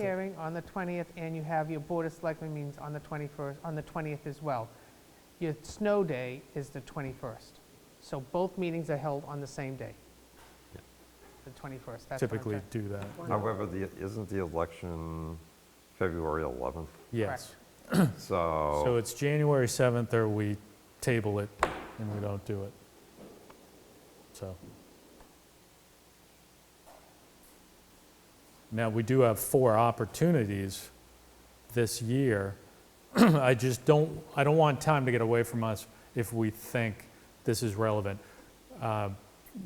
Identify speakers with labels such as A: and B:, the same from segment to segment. A: hearing on the 20th, and you have your Board of Selectmen meetings on the 21st, on the 20th as well. Your snow day is the 21st. So both meetings are held on the same day, the 21st. That's what I'm
B: typically
A: trying-
B: do that.
C: However, the, isn't the election February 11th?
B: Yes. So
C: So,
B: it's January 7th or we table it and we don't do it. So. Now, we do have four opportunities this year. I just don't, I don't want time to get away from us if we think this is relevant. Uh,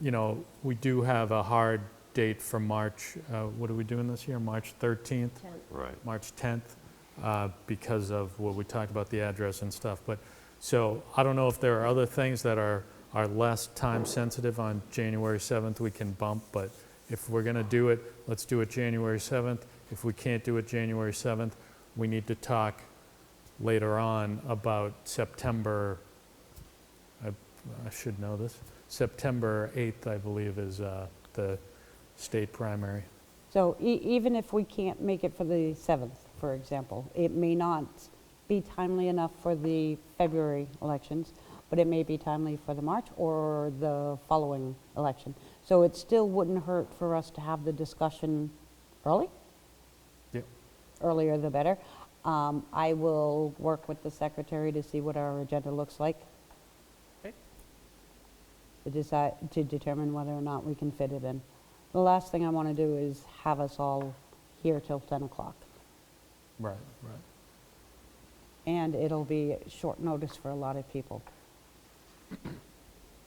B: You know, we do have a hard date for March, uh, what are we doing this year? March 13th?
C: right,
B: March 10th uh, because of what we talked about, the address and stuff. But, so I don't know if there are other things that are, are less time-sensitive on January 7th we can bump, but if we're going to do it, let's do it January 7th. If we can't do it January 7th, we need to talk later on about September, I I should know this, September 8th, I believe, is uh, the state primary.
D: So e- even if we can't make it for the 7th, for example, it may not be timely enough for the February elections, but it may be timely for the March or the following election. So it still wouldn't hurt for us to have the discussion early,
B: Yep.
D: earlier the better. Um, I will work with the secretary to see what our agenda looks like
A: Okay.
D: to decide, to determine whether or not we can fit it in. The last thing I want to do is have us all here till 10 o'clock.
B: Right, right.
D: And it'll be short notice for a lot of people.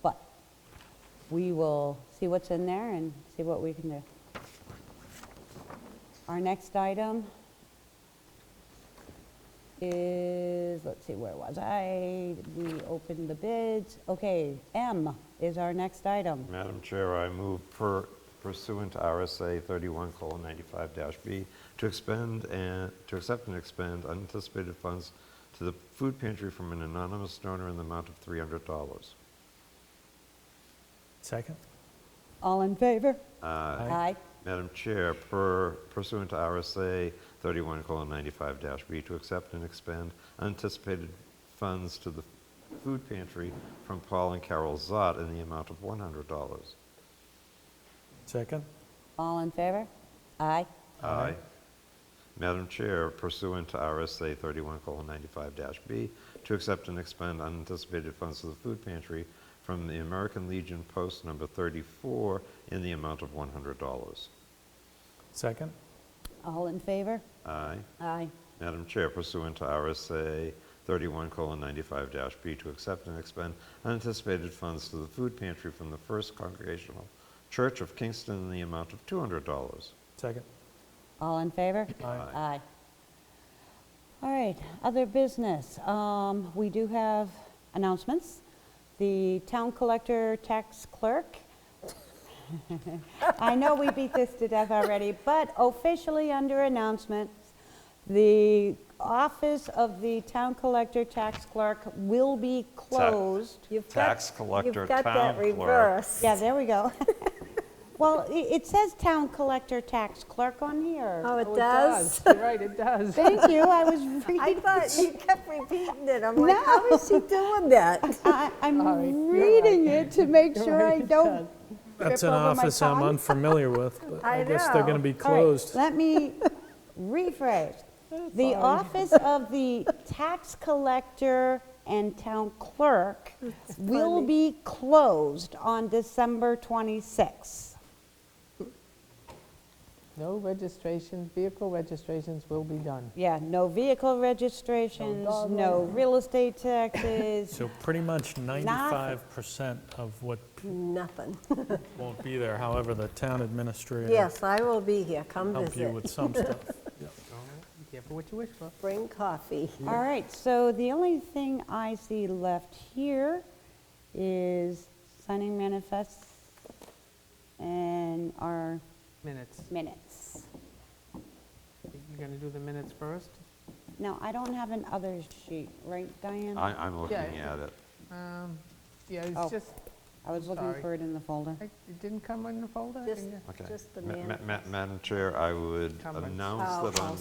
D: But we will see what's in there and see what we can do. Our next item is, let's see, where was I? We opened the bids. Okay, M is our next item.
C: Madam Chair, I move per- pursuant to RSA 31:95-B to expend and, to accept and expend unanticipated funds to the food pantry from an anonymous donor in the amount of $300.
B: Second?
D: All in favor?
B: Aye.
C: Madam Chair, per pursuant to RSA 31:95-B to accept and expend unanticipated funds to the food pantry from Paul and Carol Zott in the amount of $100.
B: Second?
D: All in favor? Aye.
C: Aye. Madam Chair, pursuant to RSA 31:95-B, to accept and expend unanticipated funds to the food pantry from the American Legion Post Number 34 in the amount of $100.
B: Second?
D: All in favor?
C: Aye.
D: Aye.
C: Madam Chair, pursuant to RSA 31:95-B, to accept and expend unanticipated funds to the food pantry from the First Congregational Church of Kingston in the amount of $200.
B: Second.
D: All in favor?
B: Aye.
D: Aye. All right, other business. Um, We do have announcements. The town collector tax clerk. I know we beat this to death already, but officially under announcements, the office of the town collector tax clerk will be closed.
E: You've got-
C: Tax collector,
E: You've got
C: town
E: that
C: clerk.
E: reversed.
D: Yeah, there we go. Well, i- it says town collector tax clerk on here.
E: Oh, it
A: Oh,
E: does?
A: You're right, it does.
D: Thank you, I was
E: I
D: reading,
E: thought you kept repeating it. I'm like, how is she doing that?
D: I-
A: Sorry,
D: I'm
A: you're
D: reading it to make sure I don't.
B: That's an
D: Trip over my
B: office I'm
D: tongue.
B: unfamiliar with, but I
E: I
B: guess they're going to
E: know.
B: be
D: All right,
B: closed.
D: Let me rephrase. The office of the tax collector and town clerk will be closed on December 26th.
A: No registrations, vehicle registrations will be done.
D: Yeah, no vehicle registrations,
A: dog
D: no real estate taxes,
B: So pretty much 95% of what
E: Nothing.
B: won't be there, however, the town administrator
E: Yes, I will be here. Come
B: help you
E: visit.
B: with some stuff.
A: Careful what you wish for.
E: Bring coffee.
D: All right, so the only thing I see left here is signing manifests and our
A: Minutes.
D: minutes.
A: You're going to do the minutes first?
D: Now, I don't have an others sheet, right, Diane?
C: I- I'm looking
A: Yeah.
C: at it.
A: Um, Yeah,
D: Oh.
A: it's just,
D: I was looking
A: Sorry.
D: for it in the folder.
A: I- It didn't come in the folder? I
E: Just,
A: didn't-
C: Okay.
E: just the
C: Ma- ma-
E: man.
C: ma- Madam Chair, I would
A: Comments.
C: announce
E: Oh,
C: that
E: oh,
C: on